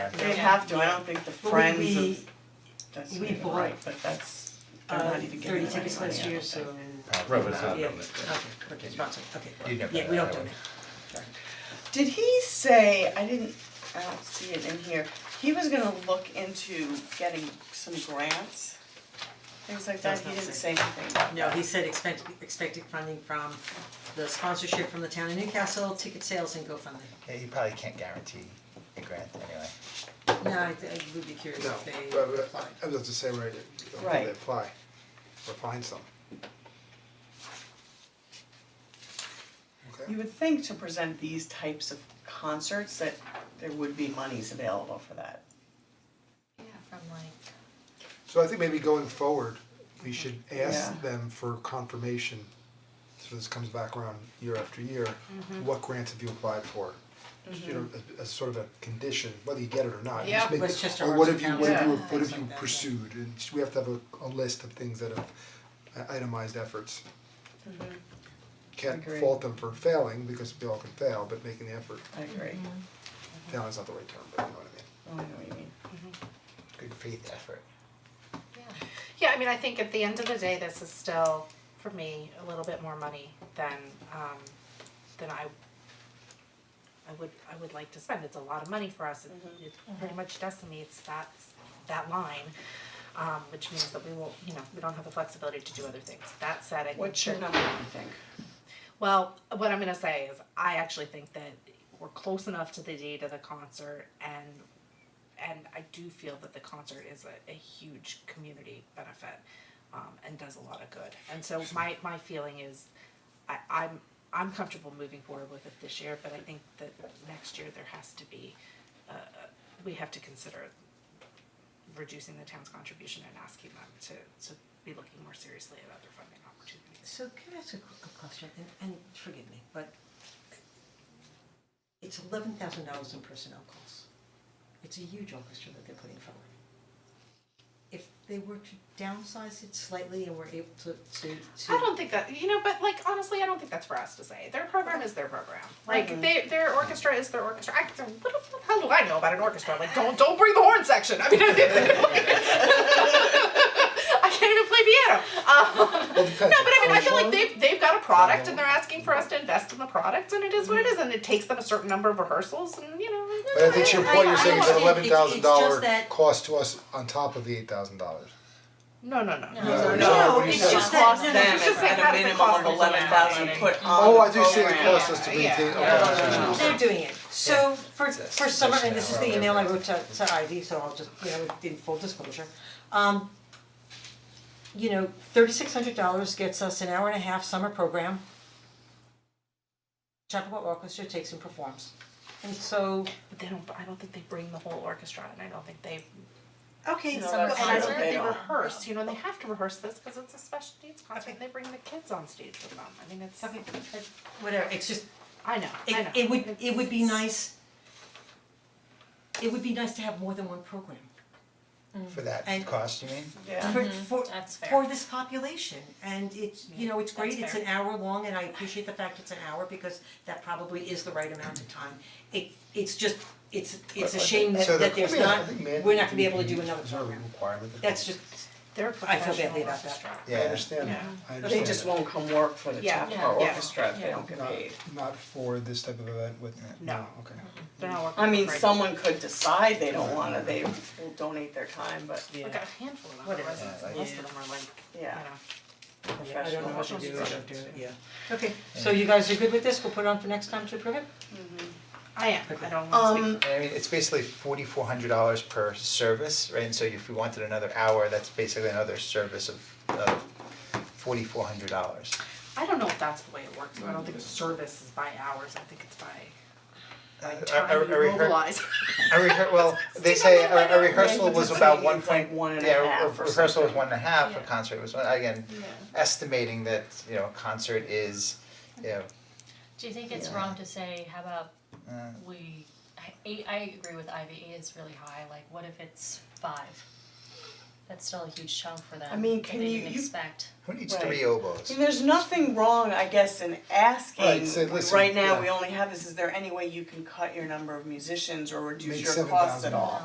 They have to, I don't think the But we- friends we- of, that's we even bought, right, but that's, they're Uh, not even giving thirty away tickets money, I last don't year, think. so. Right, but it's not Yeah, government. okay, okay, sponsored, okay. You never Yeah, we had don't do that that. Did he say, I didn't, I don't see it in here, he was gonna look into getting some grants? Things like that, Does he not didn't say say. anything. No, he said expect, expected funding from the sponsorship from the town of Newcastle, ticket sales and GoFundMe. Yeah, you probably can't guarantee a grant anyway. No, I, I would be curious No, if they. but- but I I was about to say where Right. they apply or find some. Okay, You would think to present these types of concerts that there would be monies available for that. Yeah, from like, so I think maybe going forward, we should Yeah. ask them for confirmation, so this comes back around year after year, what grants have you applied for? Just, You know, as as sort of a condition, whether you get it or not, Yeah. just make, Westchester or what Arts have you, what have you, and what Towns, have you yeah. pursued, and we have to have a a list of things that have i- itemized efforts. Agree. Can't fault them for failing, because we all can fail, but making the effort I agree, Mm-hmm. Oh, Failing is not the right term, but you know what I mean. I know what you mean. Good faith effort. yeah. Yeah, I mean, I think at the end of the day, this is still, for me, a little bit more money than um than I I would I would like to spend. It's a lot of money for us. It it pretty much decimates that that line. Um which means that we won't, you know, we don't have the flexibility to do other things. That said, I think What's your that- number, you think? Well, what I'm gonna say is I actually think that we're close enough to the date of the concert and and I do feel that the concert is a, a huge community benefit um, and does a lot of good. And so my, my feeling is I, I'm I'm comfortable moving forward with it this year, but I think that next year there has to be uh, we have to consider reducing the town's contribution and asking them to, to be looking more seriously at other funding opportunities. So can I ask a quick quick question, and, and forgive me, but it's eleven thousand dollars in personnel costs. It's a huge orchestra that they're putting forward. If they were to downsize it slightly and were able to, to, to. I don't think that you know, but like honestly, I don't think that's for us to say. Their program is their program. Like they, their orchestra is their orchestra. I, what the hell do I know about an orchestra? Like don't don't bring the horn section. I mean, like, I can't even play piano. Um, Well, because no, but I mean, I feel like Oslo- they've they've got a product and they're asking for us to invest in the product, and it is what it is, and it takes them a certain number of rehearsals, and you know. Mm-hmm. But I think to your I- point, I you're saying it's an understand. eleven It's- it's thousand just dollar that- cost to us on top of the eight thousand dollars. No, no, no, no. No, No, what do you it's say? just that- Cost no, them no, it's just that at how a does it minimum cost of them? eleven thousand put on Oh, the I do see it program. costs us to Yeah, maintain, yeah. okay, so No, They're doing it, so for for summer, and this is the email I wrote to to Ivy, so I'll just, you know, in full disclosure. Um, you know, thirty six hundred dollars gets us an hour and a half summer program. Chapel Orchestra takes and performs, and so, But they don't. I don't think they bring the whole orchestra, and I don't think they okay, No, so- that's And Concert, I don't they think they don't. rehearse, you know, they have to rehearse this because it's a special needs concert Okay. and they bring the kids on stage with them. I mean, it's, okay, that's- whatever, it's just, I know, I it know. it would, it would be It's- nice. It would be nice to have more than one program For that And- cost, you mean? Yeah, for for That's for this population, and it's, you know, it's great, That's it's an hour long, and I appreciate the fact it's an hour, because that probably is the right amount of time. It, it's just, it's, it's a shame that, So the- that there's I mean, I not, think man- Mm-hmm. we're not gonna be able to do another Is there a program, requirement that- that's just, They're a I feel badly professional about that. orchestra. Yeah. I understand that, I understand that. they just won't come work for the Yeah, Chapel yeah, yeah, Orchestra if they yeah. don't get Not- paid. Not for this type of event with, no, No. okay. They're not working. I mean, for free. someone could decide they don't wanna, they will donate their time, but yeah. Like a handful of them, Whatever. residents, Yeah, most of like- them are like, you know. Yeah. Yeah, I don't know what to professional. do, I musicians. don't do it, yeah. Okay, so you guys are good with this, we'll put it on for next time to approve it? I am, I don't want to Um, speak. And I mean, it's basically forty-four hundred dollars per service, right, and so if we wanted another hour, that's basically another service of of forty-four hundred dollars. I don't know if that's the way it works, though. I don't think service is by hours, I think it's by by I- I- time I you Uh, rehear- mobilize. A rehear- well, they say Do a you know a what I mean? rehearsal Like, was it's about like one it's point, like one and a yeah, a- a half or rehearsal was something. one and a half, a Yeah. concert was, one- again, Yeah. estimating that, you know, concert is, you know, Do you think it's Yeah. wrong to say, how about uh, we, I- eight, I agree with Ivy, eight is really high, like what if it's five? That's still a huge chunk for them I mean, that can they you- didn't you- expect. who needs Right. three oboes? And there's nothing wrong, I guess, in asking, Right, so listen, right now, yeah. we only have this, is there any way you can cut your number of musicians or reduce Make your costs at all? 7,000.